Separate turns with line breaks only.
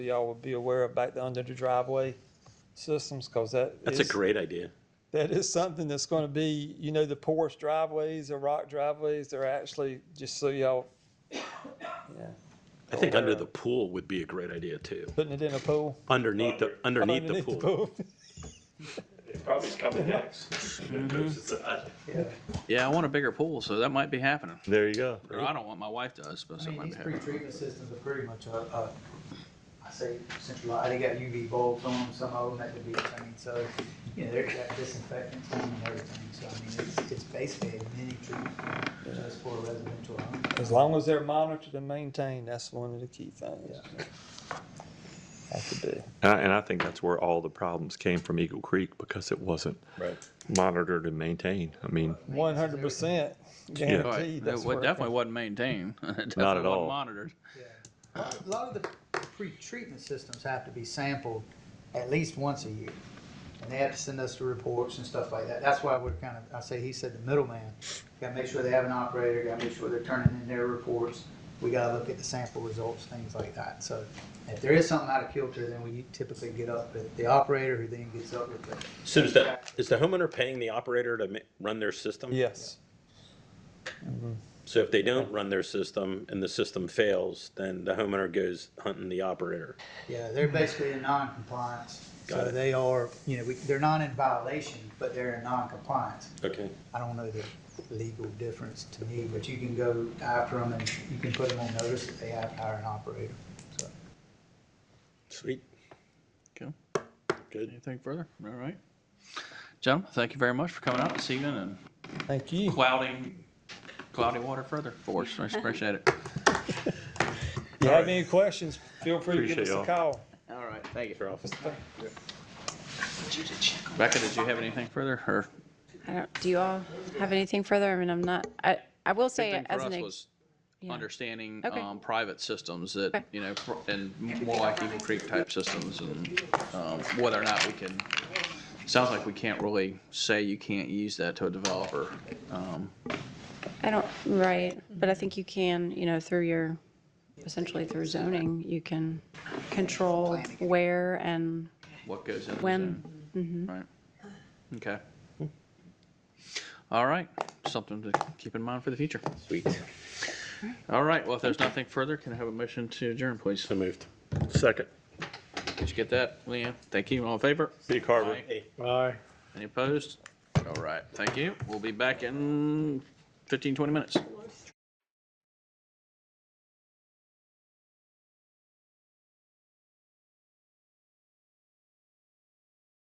y'all would be aware of back under the driveway systems, because that.
That's a
is-
great idea.
That is something that's going to be, you know, the porous driveways or rock driveways, they're actually, just so y'all, yeah,
I think under
where-
the pool would be a great idea too.
putting it in a pool.
Underneath the, underneath the pool.
Probably is coming next.
uh,
Yeah, I want a bigger pool, so that might be happening.
There you go.
Or I don't want my wife to, I suppose
I
that
mean,
might be
these
happening.
pre-treatment systems are pretty much, uh, uh, I say centralized, they got UV bulbs on them, some of them at the beach, I mean, so, you know, they're got disinfectants on them and everything, so I mean, it's, it's basically a mini treatment just for residential homes.
As long as they're monitored and maintained, that's one of the key things. That could be.
And I think that's where all the problems came from Eagle Creek because it wasn't
Right.
monitored and maintained. I mean,
One hundred percent
Right.
guaranteed.
It
that's
wa-
where-
definitely wasn't maintained. It definitely
at
wasn't
all.
Monitored.
Yeah. A lot- A lot of the pre-treatment systems have to be sampled at least once a year. And they have to send us the reports and stuff like that. That's why we're kind of, I say, he said the middleman. Gotta make sure they have an operator, gotta make sure they're turning in their reports. We gotta look at the sample results, things like that. So if there is something out of kilter, then we typically get up with the operator who then gets up with the
So is the, is the homeowner paying the operator to ma- run their system?
Yes,
So if they don't run their system and the system fails, then the homeowner goes hunting the operator.
Yeah, they're basically in non-compliance.
Got
So
it.
they are, you know, we- they're not in violation, but they're in non-compliance.
Okay.
I don't know the legal difference to me, but you can go after them and you can put them on notice that they have to hire an operator. So,
Sweet.
Okay.
Good.
Anything further? All right. Gentlemen, thank you very much for coming out this evening and
thank you.
clouding, cloudy water further for us. I appreciate it.
If you have any questions, feel free to give us
Appreciate
a call.
All right, thank you.
Your office.
Becca, did you have anything further or?
I don't, do you all have anything further? I mean, I'm not, I, I will
Big
say
thing for
as
us
an, ex-
was understanding,
Okay.
um, private systems that,
Okay.
you know, pr- and more like Eagle Creek type systems and, um, whether or not we can, sounds like we can't really say you can't use that to a developer. Um,
I don't, right, but I think you can, you know, through your, essentially through zoning, you can control where and
what goes in. the
When- Mm-hmm.
zone. Right. Okay. All right, something to keep in mind for the future.
Sweet.
All right, well, if there's nothing further, can I have a motion to adjourn, please?
So moved. Second.
Did you get that, Leanne? Thank you, all in favor?
City Carver.
Aye. Any opposed? All right, thank you. We'll be back in 15, 20 minutes.